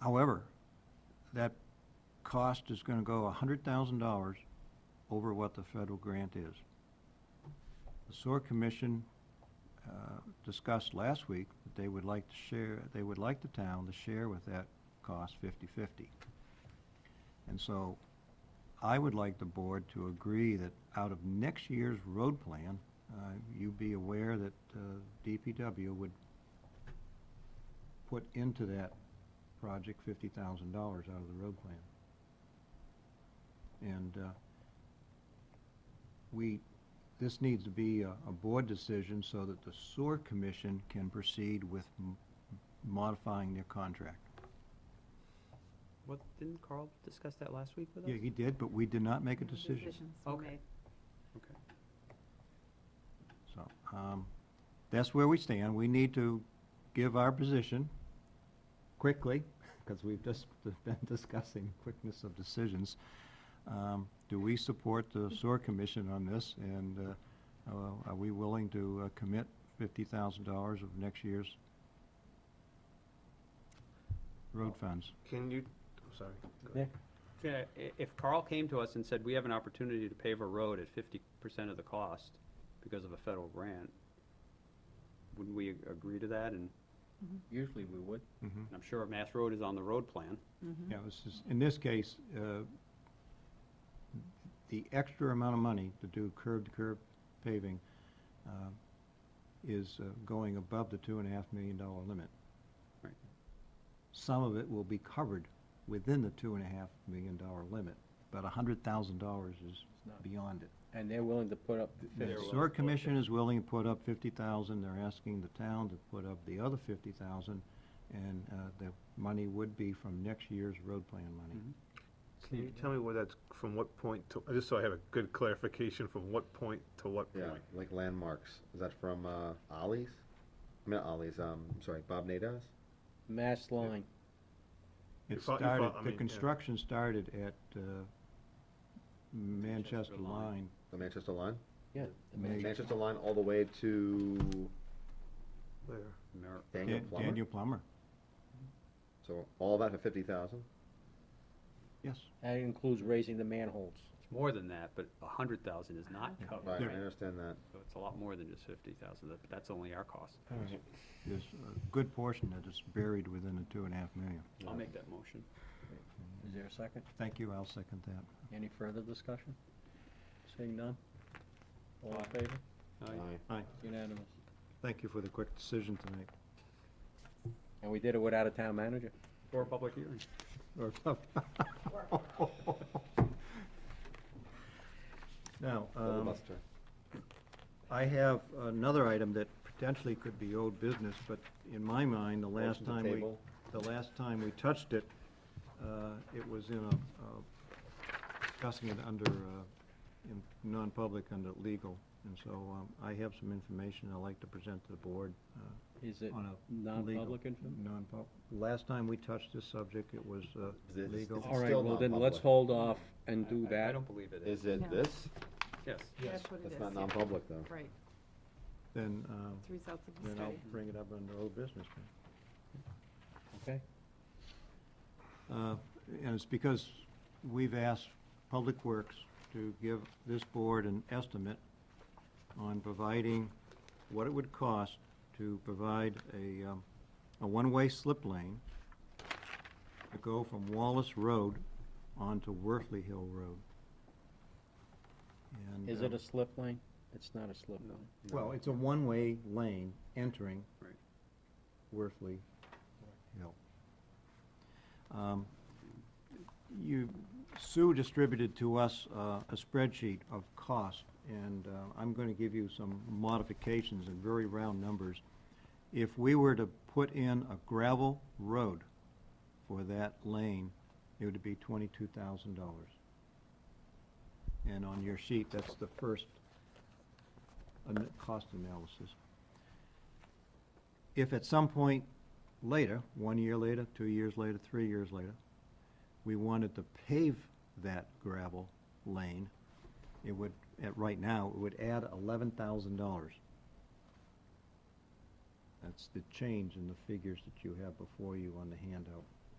However, that cost is gonna go hundred thousand dollars over what the federal grant is. The SOAR Commission, uh, discussed last week that they would like to share, they would like the town to share with that cost fifty-fifty. And so, I would like the board to agree that out of next year's road plan, uh, you be aware that uh, DPW would put into that project fifty thousand dollars out of the road plan. And uh, we, this needs to be a, a board decision so that the sewer commission can proceed with m- modifying their contract. What, didn't Carl discuss that last week with us? Yeah, he did, but we did not make a No decision. Decisions were Okay. made. Okay. So, um, that's where we stand. We need to give our position quickly, because we've just been discussing quickness of decisions. Um, do we support the sewer commission on this, and, uh, uh, are we willing to uh, commit fifty thousand dollars of next year's road funds? Can you, I'm sorry. go ahead. Yeah, i- if Carl came to us and said, we have an opportunity to pave a road at fifty percent of the cost because of a federal grant, wouldn't we ag- agree to that? And Usually we would. Mm-hmm. I'm sure Mass Road is on the road plan. Mhm. Yeah, this is, in this case, uh, the extra amount of money to do curb-to-curb paving uh, is uh, going above the two and a half million dollar limit. Right. Some of it will be covered within the two and a half million dollar limit, but a hundred thousand dollars is not. beyond it. And they're willing to put up the The They're willing sewer to put it commission is willing to put up fifty thousand, they're asking the town to put up the other fifty thousand, and uh, the money would be from next year's road plan money. Can you tell me where that's, from what point to, just so I have a good clarification, from what point to what Yeah, point? like landmarks. Is that from uh, Ollie's? I mean, not Ollie's. Um, I'm sorry, Bob Nadas. mass line. It You fo- you fo- started, I the mean, yeah. construction started at uh, Manchester Manchester line. Line. The Manchester line. Yeah. the May- mass- Manchester line all the way to There. Mer- Daniel Dan- Plummer. Daniel Plummer, So all that for fifty thousand. yes. That includes raising the manholes. It's more than that, but a hundred thousand is not covered, Right, I right? understand that. So it's a lot more than just fifty thousand, that, that's only our cost. There's a good portion that is buried within the two and a half million. I'll make that motion. Is there a second? Thank you, I'll second that. Any further discussion? Seeing none? All in Aye. favor? All right. Aye. Unanimous. Thank you for the quick decision tonight. And we did it without a town manager? For a public hearing. Or- Now, um, Filibuster. I have another item that potentially could be old business, but in my mind, the last Motion to time we, table. the last time we touched it, uh, it was in a, a- discussing it under, uh, in non-public, under legal. And so um, I have some information I'd like to present to the board uh, Is it on a. legal- non-public information? Non-pub, last time we touched this subject, it was uh, Is it- legal. is it All right, still well then, let's non-public. hold off and I- do I- I that. don't believe it is. Is it No. this? Yes. That's what it is. That's not yeah. non-public though. Right, Then, uh, it's results of the then I'll study. bring it up under old business. Okay. Uh, And it's because we've asked Public Works to give this board an estimate on providing what it would cost to provide a, um, a one-way slip lane to go from Wallace Road onto Worthley Hill Road. And, Is uh, it a slip lane? It's not a slip lane. Well, it's a one-way lane entering Right. Worthley Hill. Um, You, Sue distributed to us uh, a spreadsheet of cost, and uh, I'm going to give you some modifications in very round numbers. If we were to put in a gravel road for that lane, it would be twenty-two thousand dollars. And on your sheet, that's the first an- cost analysis. If at some point later, one year later, two years later, three years later, we wanted to pave that gravel lane, it would, at, right now, it would add eleven thousand dollars. That's the change in the figures that you have before you on the handout.